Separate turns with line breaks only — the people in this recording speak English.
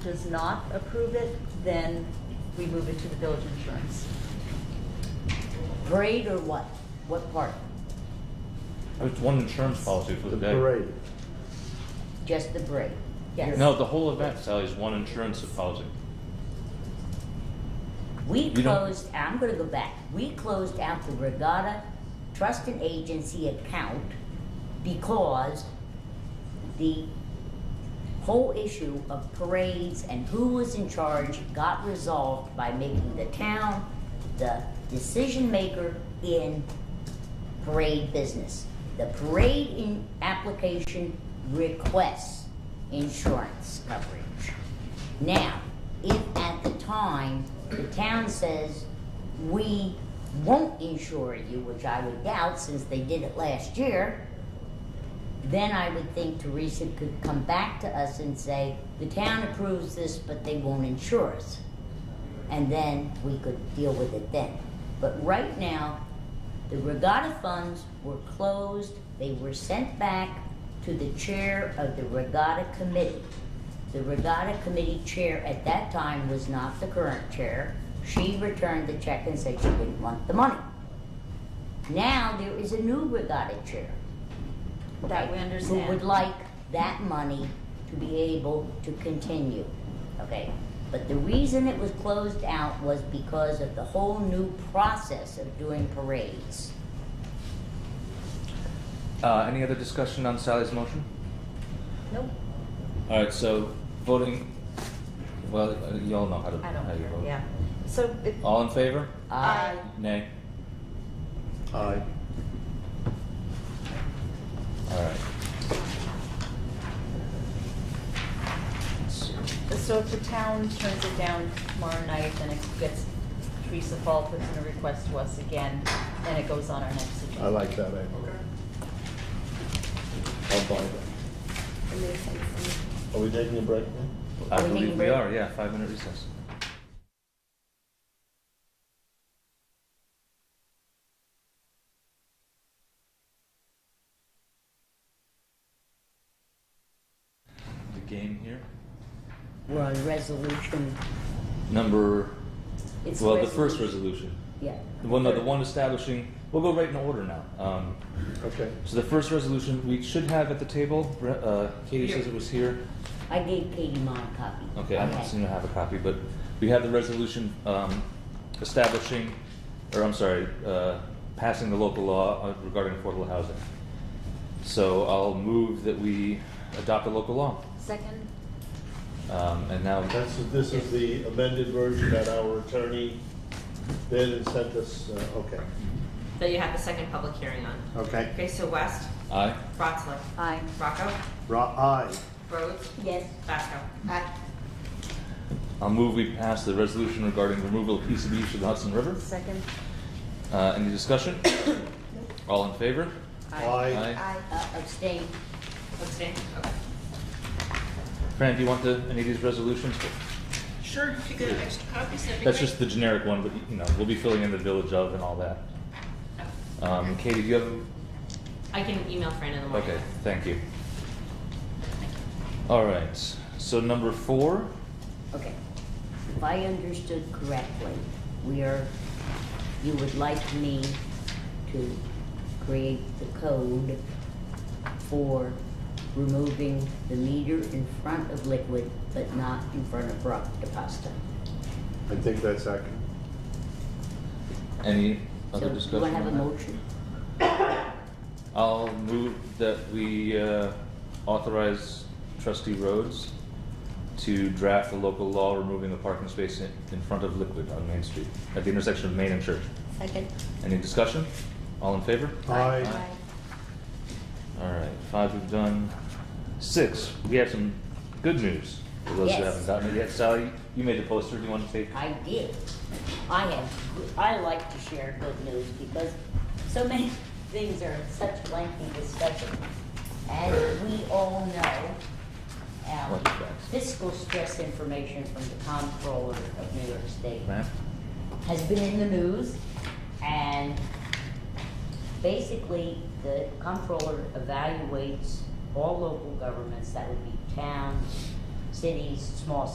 does not approve it, then we move it to the village insurance.
Parade or what? What part?
It's one insurance policy for the
The
day.
parade.
Just the parade?
Yes.
No, the whole event, Sally, is one insurance policy.
We
You don't-
closed, I'm gonna go back, we closed out the Regatta Trust and Agency account because the whole issue of parades and who was in charge got resolved by making the town the decision maker in parade business. The parade in application requests insurance coverage. Now, if at the time the town says, we won't insure you, which I would doubt since they did it last year, then I would think Teresa could come back to us and say, the town approves this, but they won't insure us. And then we could deal with it then. But right now, the regatta funds were closed, they were sent back to the chair of the regatta committee. The regatta committee chair at that time was not the current chair. She returned the check and said she didn't want the money. Now there is a new regatta chair.
That we
okay,
understand.
Who would like that money to be able to continue, okay? But the reason it was closed out was because of the whole new process of doing parades.
Uh, any other discussion on Sally's motion?
Nope,
All right, so voting. Well, uh, you all know how to
I don't
how you
care,
vote.
yeah. So if,
All in favor?
I
Nay.
Aye.
All right. Let's see.
so if the town turns it down tomorrow night, then it gets, Teresa Fall puts in a request to us again, then it goes on our next agenda.
I like that angle. I'll buy that. Are we taking a break now?
I
Are we taking
believe
a
we
break?
are. Yeah, five minute recess. The game here.
We're on resolution,
Number.
it's.
well, the first
resolution.
resolution.
Yeah.
The one, no, the one establishing. We'll go right in order now. Um,
Okay.
so the first resolution we should have at the table. Bre- Uh, Katie says it was here.
I gave Katie mine copy.
Okay, I don't seem to have a copy, but we have the resolution um, establishing, or I'm sorry, uh, passing the local law uh, regarding affordable housing. So I'll move that we adopt a local law.
Second?
Um, And now,
That's, this is the amended version that our attorney did and sent us, uh, okay.
that you have the second public hearing on.
Okay.
Okay, so West,
aye?
Rotsler,
Aye.
Rocco,
Ra, aye.
Rhodes,
Yes,
Basco.
Aye.
I'll move we pass the resolution regarding removal of PCBs from the Hudson River.
Second?
Uh, Any discussion? All in favor?
Aye.
uh, abstain.
Abstain? Okay.
Fran, do you want the, any of these resolutions?
Sure, if you get extra copies, that'd be
That's
great.
just the generic one, but, you know, we'll be filling in the village of and all that. Um, Katie, do you have
I can email Fran in the morning.
Okay, thank you. All right, so number four,
Okay. If I understood correctly, we are, you would like me to create the code for removing the meter in front of liquid, but not in front of rock deposit.
I think that's accurate.
any other
So you
discussion
wanna have a
on that?
motion?
I'll move that we uh, authorize trustee Rhodes to draft the local law removing the parking space in in front of Liquid on Main Street, at the intersection of Main and Church.
Second?
Any discussion? All in favor?
Aye.
All right, five we've done. Six, we have some good news for those who
Yes.
haven't gotten it yet. Sally, you made the poster, do you want to take?
I did. I have, I like to share good news because so many things are such lengthy discussion. As we all know, our
What's that?
fiscal stress information from the comptroller of New York State
Ma'am?
has been in the news, and basically, the comptroller evaluates all local governments, that would be towns, cities, small